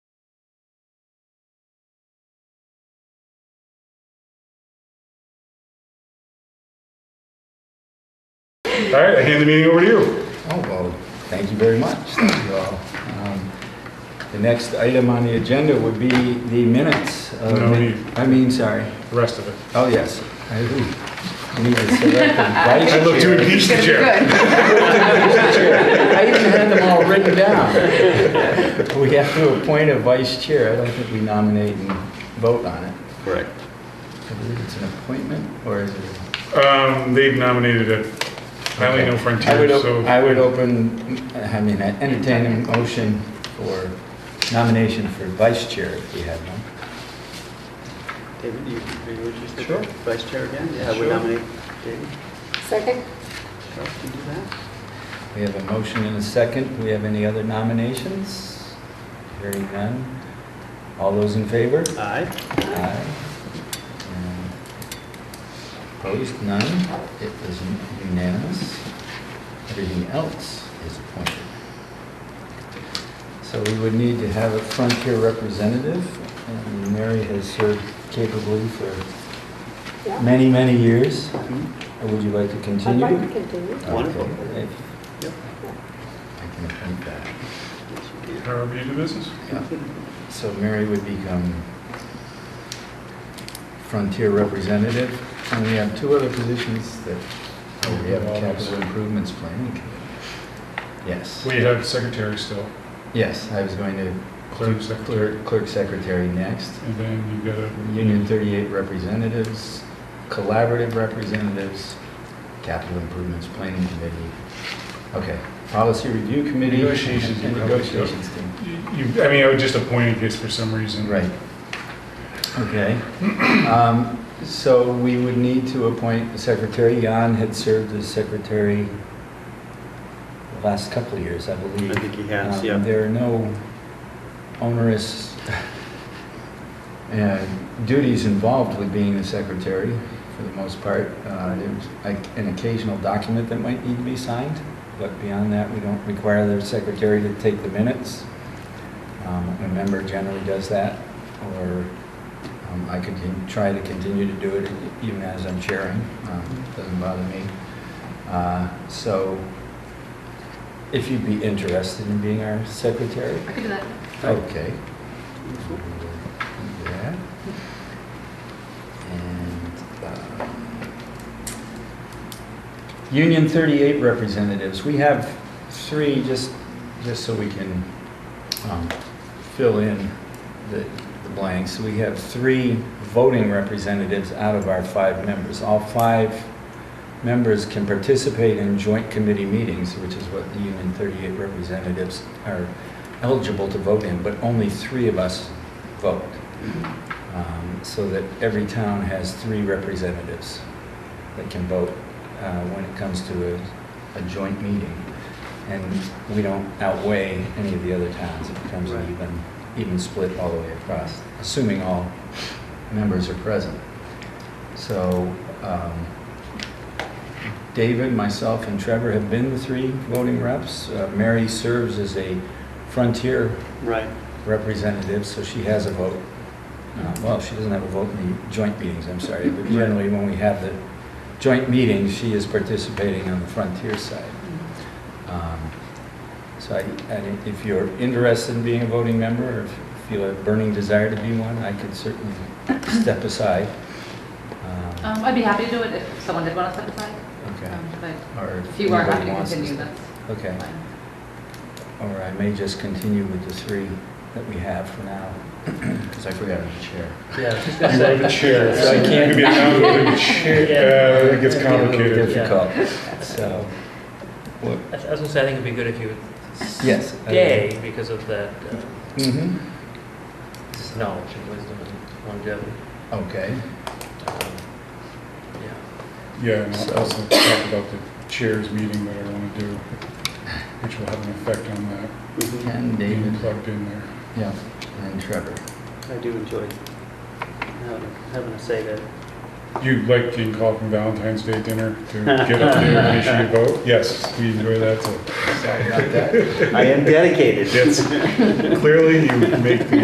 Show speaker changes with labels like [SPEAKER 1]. [SPEAKER 1] All right, I hand the meeting over to you.
[SPEAKER 2] Oh, well, thank you very much. Thank you all. Um, The next item on the agenda would be the minutes. of-
[SPEAKER 1] No need.
[SPEAKER 2] I mean, sorry.
[SPEAKER 1] The rest of it.
[SPEAKER 2] Oh, yes. I ooh. I need to select the vice
[SPEAKER 1] I'd love to
[SPEAKER 2] chair.
[SPEAKER 1] impeach the
[SPEAKER 3] It's
[SPEAKER 1] chair.
[SPEAKER 3] gonna be good.
[SPEAKER 2] I even had them all written down. We have to appoint a vice chair. I don't think we nominate and vote on it.
[SPEAKER 4] Correct.
[SPEAKER 2] I believe it's an appointment, or is it?
[SPEAKER 1] Um, they've nominated it. I only know
[SPEAKER 2] I would,
[SPEAKER 1] Frontier,
[SPEAKER 2] op-
[SPEAKER 1] so
[SPEAKER 2] I would open, I mean, I entertain a motion for nomination for vice chair if we have one.
[SPEAKER 4] David, you, are you interested?
[SPEAKER 2] Sure.
[SPEAKER 4] Vice Chair again? Yeah, I
[SPEAKER 2] Sure.
[SPEAKER 4] would nominate David.
[SPEAKER 3] Second?
[SPEAKER 4] Sure, you do that.
[SPEAKER 2] We have a motion and a second. Do we have any other nominations? Hearing none. All those in favor?
[SPEAKER 4] Aye.
[SPEAKER 2] Aye. And Opposed? None. It is unanimous. Everything else is appointed. So we would need to have a Frontier representative, and Mary has served capably for
[SPEAKER 3] Yeah.
[SPEAKER 2] many, many years.
[SPEAKER 4] Mm-hmm.
[SPEAKER 2] Would you like to
[SPEAKER 3] I'd
[SPEAKER 2] continue?
[SPEAKER 3] like to continue.
[SPEAKER 4] Wonderful.
[SPEAKER 2] Okay.
[SPEAKER 4] Yep.
[SPEAKER 2] I can appoint that.
[SPEAKER 4] Yes, you do.
[SPEAKER 1] however you do business.
[SPEAKER 2] So Mary would become Frontier representative, and we have two other positions that, oh, we have a capital improvements planning committee. Yes,
[SPEAKER 1] We have secretary still,
[SPEAKER 2] yes, I was going to
[SPEAKER 1] clerk, secretary,
[SPEAKER 2] clerk, clerk secretary next,
[SPEAKER 1] and then you've got a.
[SPEAKER 2] Union 38 representatives, collaborative representatives, capital improvements planning committee, okay, policy review committee.
[SPEAKER 1] Negotiations, you
[SPEAKER 2] And
[SPEAKER 1] probably-
[SPEAKER 2] negotiations team.
[SPEAKER 1] You, I mean, I would just appoint in case for some reason.
[SPEAKER 2] Right. Okay. Um, So we would need to appoint a secretary. Jan had served as secretary the last couple of years, I believe.
[SPEAKER 4] I think he has,
[SPEAKER 2] Um,
[SPEAKER 4] yeah.
[SPEAKER 2] There are no onerous uh, duties involved with being a secretary, for the most part. Uh, There's like an occasional document that might need to be signed, but beyond that, we don't require the secretary to take the minutes. Um, A member generally does that, or um, I could con- try to continue to do it even as I'm chairing. Um, Doesn't bother me. Uh, So if you'd be interested in being our secretary?
[SPEAKER 3] I could do that.
[SPEAKER 2] Okay.
[SPEAKER 4] Wonderful.
[SPEAKER 2] Yeah. And, um, Union 38 representatives, we have three, just, just so we can um, fill in the the blanks. We have three voting representatives out of our five members. All five members can participate in joint committee meetings, which is what the Union 38 representatives are eligible to vote in, but only three of us vote,
[SPEAKER 4] Mm-hmm.
[SPEAKER 2] um, so that every town has three representatives that can vote uh, when it comes to a, a joint meeting. And we don't outweigh any of the other towns. It becomes
[SPEAKER 4] Right.
[SPEAKER 2] an even, even split all the way across, assuming all members are present. So um, David, myself, and Trevor have been the three voting reps. Uh, Mary serves as a Frontier
[SPEAKER 4] Right.
[SPEAKER 2] representative, so she has a vote. Uh, Well, she doesn't have a vote in the joint meetings, I'm sorry, but generally when we have the joint meetings, she is participating on the Frontier side. Um, So I, and if you're interested in being a voting member, or if you feel a burning desire to be one, I could certainly step aside. Um,
[SPEAKER 5] Um, I'd be happy to do it if someone did want to step aside.
[SPEAKER 2] Okay.
[SPEAKER 5] Um, But
[SPEAKER 2] Or
[SPEAKER 5] if you are happy
[SPEAKER 2] anybody
[SPEAKER 5] to
[SPEAKER 2] wants
[SPEAKER 5] continue,
[SPEAKER 2] step-
[SPEAKER 5] that's
[SPEAKER 2] Okay.
[SPEAKER 5] fine.
[SPEAKER 2] Or I may just continue with the three that we have for now, because I forgot the chair.
[SPEAKER 6] Yeah,
[SPEAKER 1] You have a chair.
[SPEAKER 2] So I can't-
[SPEAKER 1] You could be a non-voting chair. Uh, It gets complicated.
[SPEAKER 6] Yeah.
[SPEAKER 2] Difficult, so, what,
[SPEAKER 6] I was gonna say, I think it'd be good if you
[SPEAKER 2] yes. uh,
[SPEAKER 6] stay because of that uh,
[SPEAKER 2] Mm-hmm,
[SPEAKER 6] just knowledge and wisdom and longevity.
[SPEAKER 2] okay.
[SPEAKER 6] Um, Yeah,
[SPEAKER 1] Yeah, and I'll also talk about the chairs meeting that I want to do, which will have an effect on that,
[SPEAKER 4] Mhm.
[SPEAKER 2] And
[SPEAKER 1] being
[SPEAKER 2] David,
[SPEAKER 1] plugged in there.
[SPEAKER 2] yeah, and Trevor.
[SPEAKER 4] I do enjoy having- having a say there.
[SPEAKER 1] You like being called from Valentine's Day dinner to get up there and make sure you vote? Yes, we enjoy that too.
[SPEAKER 2] Sorry about that.
[SPEAKER 4] I am dedicated.
[SPEAKER 1] Yes, clearly you make the